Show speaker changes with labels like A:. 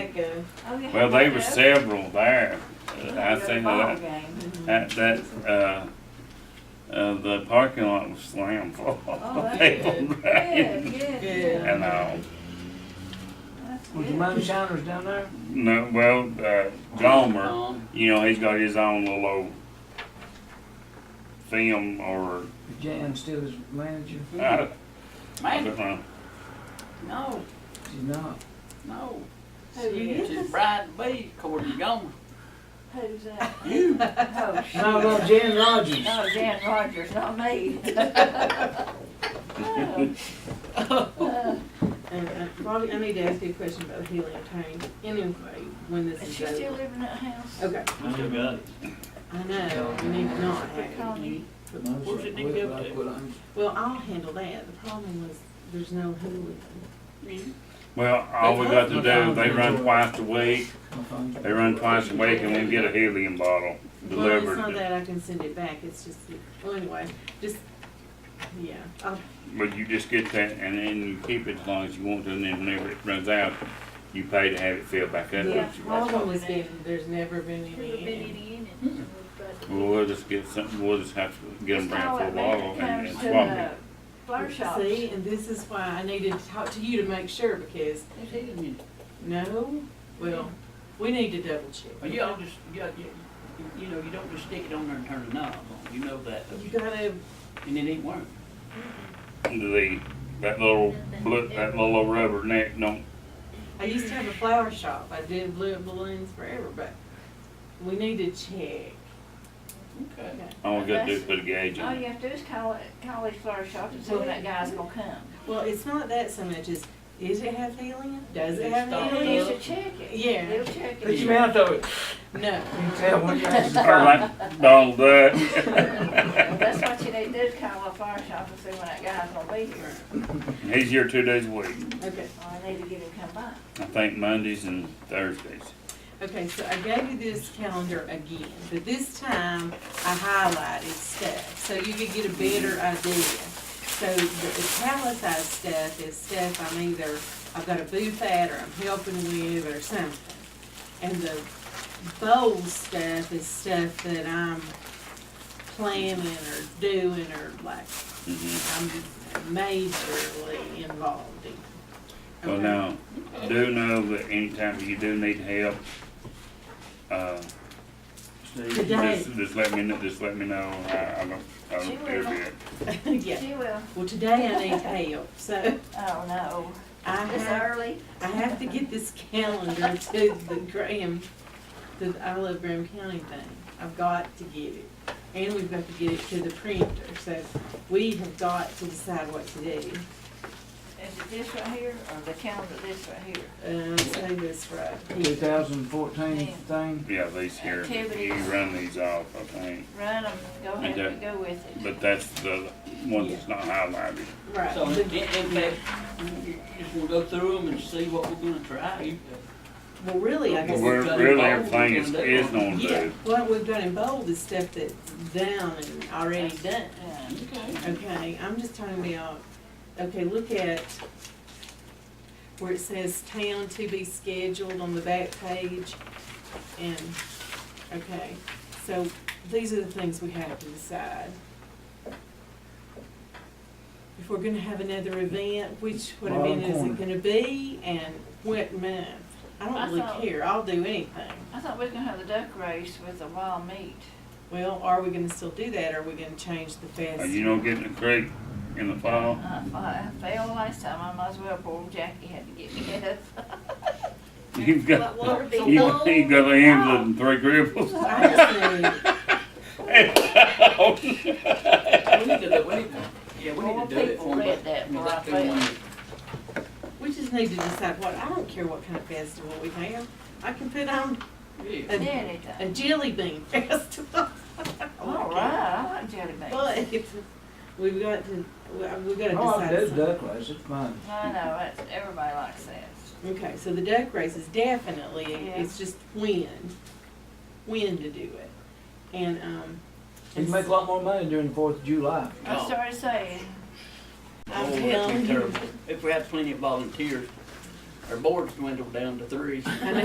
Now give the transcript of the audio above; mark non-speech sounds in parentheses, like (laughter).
A: too.
B: Oh, you
C: Well,
B: had
C: they
B: that
C: were
B: up?
C: several there. Uh, I
B: Your
C: seen
B: ball
C: that,
B: game.
C: that, that, uh, uh, the parking lot was slammed full
B: Oh,
C: of
B: that's
C: people (laughs)
A: good.
B: Good,
C: riding.
B: good,
A: Good.
B: good.
C: And, uh,
B: That's
D: Was your
B: good.
D: mom shiners down there?
C: no, well, uh, Gomer, you know, he's got his own little old film or,
D: Is Jan still his manager?
C: I I
E: Man,
C: don't know.
E: no,
D: She's not.
E: no.
B: Who is?
E: She's bride to be, according to Gomer.
B: Who's that?
A: (laughs)
E: You,
B: Oh, shit.
D: No, no, Jan Rogers.
B: No, Dan Rogers,
A: (laughs)
B: not me. Oh. Uh,
A: And, uh, Bobby, I need to ask you a question about the helium tank. Anyway, when this
B: Uh, Is
A: is
B: she still
A: over.
B: living in that house?
A: Okay,
F: I still got it.
A: I know, we need to not
B: Quit
A: have
B: calling
A: it.
B: me.
D: Mine's
F: Where's it
D: like,
F: go
D: like
F: to?
D: what I'm-
A: Well, I'll handle that. The problem was, there's no helium.
C: Well, all we got to do, they run twice a week,
D: my phone's-
C: they run twice a week and we get a helium bottle
A: Well, it's
C: delivered.
A: not that I can send it back, it's just, that- well, anyway, just, yeah, Oh, I'll,
C: But you just get that and then you keep it as long as you want to and then whenever it runs out, you pay to have it filled back up.
A: the
B: Yeah.
A: problem has been, there's never been any.
C: Well, we'll just get something, we'll just have to get them brand for a bottle and and
B: Comes to
C: swap
B: the
C: it.
B: Flower shops.
A: See, and this is why I needed to talk to you to make sure, because,
E: it's eating you.
A: no, well, we need to double check.
E: Well, you all just, you, you, you know, you don't just stick it on there and turn the knob on, you know that,
A: You gotta,
E: and it ain't working.
C: The, that little, blue- that little rubber neck don't,
A: I used to have a flower shop, I did blue balloons forever, but we need to check.
E: Okay.
C: all we gotta do is put a gauge
B: All
C: in
B: you
C: it.
B: have to do is call it, call these flower shops and see when that guy's gonna come.
A: Well, it's not that so much as, is it have helium? Does it have
E: Stop.
B: They used
A: helium?
B: to check it.
A: Yeah.
B: They'll check
D: Put
B: it.
D: your mouth over it.
A: No.
D: You can tell when you actually
C: Or like Donald
B: Well, (laughs)
C: Duck. (laughs)
B: That's what you need to do, is call a flower shop and see when that guy's gonna be here.
C: He's here two days a week,
A: Okay,
B: Or I need to get him to come by.
C: I think Mondays and Thursdays.
A: okay, so I gave you this calendar again, but this time I highlighted stuff, so you could get a better idea. So the italicized stuff is stuff I'm either, I've got a booth at, or I'm helping with, or something. And the bold stuff is stuff that I'm planning or doing, or like,
C: Mhm.
A: I'm majorly involved in.
C: Well,
A: Okay.
C: now, do know that anytime you do need help, uh,
F: Steve,
A: Today,
C: Just, just let me, kn- just let me know, I, I don't, I
B: She
C: don't care
B: will.
A: (laughs)
C: yet.
A: yeah.
B: She will.
A: Well, today I need help, so
B: Oh, no.
A: I
B: It's
A: have,
B: early.
A: I have to get this calendar (laughs) to the Graham, the I Love Graham County thing. I've got to get it. And we've got to get it to the printer, so we have got to decide what to do.
B: Is it this right here or the calendar this right here?
A: Um, say this right here.
D: 2014 thing.
C: Yeah, these here, you
B: Activities.
C: run these off, I think,
B: Run 'em. go ahead
C: Okay.
B: and go with it.
C: but that's the one that's not highlighted.
A: Right.
E: So, in,
A: the-
E: in fact, you just wanna go through them and see what we're gonna try. You-
A: Well, really, I
C: But
A: guess.
C: we're, really, everything is, is known
A: Yeah,
C: to,
A: what we've got in bold is stuff that's down and already done.
E: Okay.
A: Okay, I'm just talking about, okay, look at where it says town to be scheduled on the back page. And, okay, so these are the things we have to decide. If we're gonna have another event, which, what
D: Bottom
A: event is
D: corner.
A: it gonna be and what month? I
B: I
A: don't really
B: thought-
A: care, I'll do anything.
B: I thought we was gonna have the duck race with the wild meat.
A: Well, are we gonna still do that, or are we gonna change the
C: Are
A: fest?
C: you don't get in the creek in the fall,
B: I, Uh, I failed last time, I might as well, poor Jackie had to get me up. (laughs)
C: you've got,
G: What water be
C: you,
G: low?
C: you've got the Hamlet and three Gribbles.
A: I just need-
C: (laughs) Oh,
E: We need to do, we need to, yeah, we
B: More
E: need to do it
B: people
E: for them.
B: read that before I failed.
A: We just need to decide what, I don't care what kind of festival we have. I can put on
E: Yeah.
A: a, a
B: Anything.
A: jelly bean (laughs) festival.
B: All right, I like jelly beans.
A: But if- we've got to, we- we've got to
D: All Oh, I do
A: decide
D: is
A: something.
D: duck race, it's fine.
B: I know, it's, everybody likes that.
A: Okay, so the duck race is definitely,
B: Yeah.
A: it's just when, when to do it. And, um,
D: You can make a lot more money during the Fourth of July.
B: I
E: Oh.
B: started saying,
A: I'm
E: Oh, that'd be
A: telling you.
E: terrible. If we had plenty of volunteers, our boards dwindled down to three.
A: I know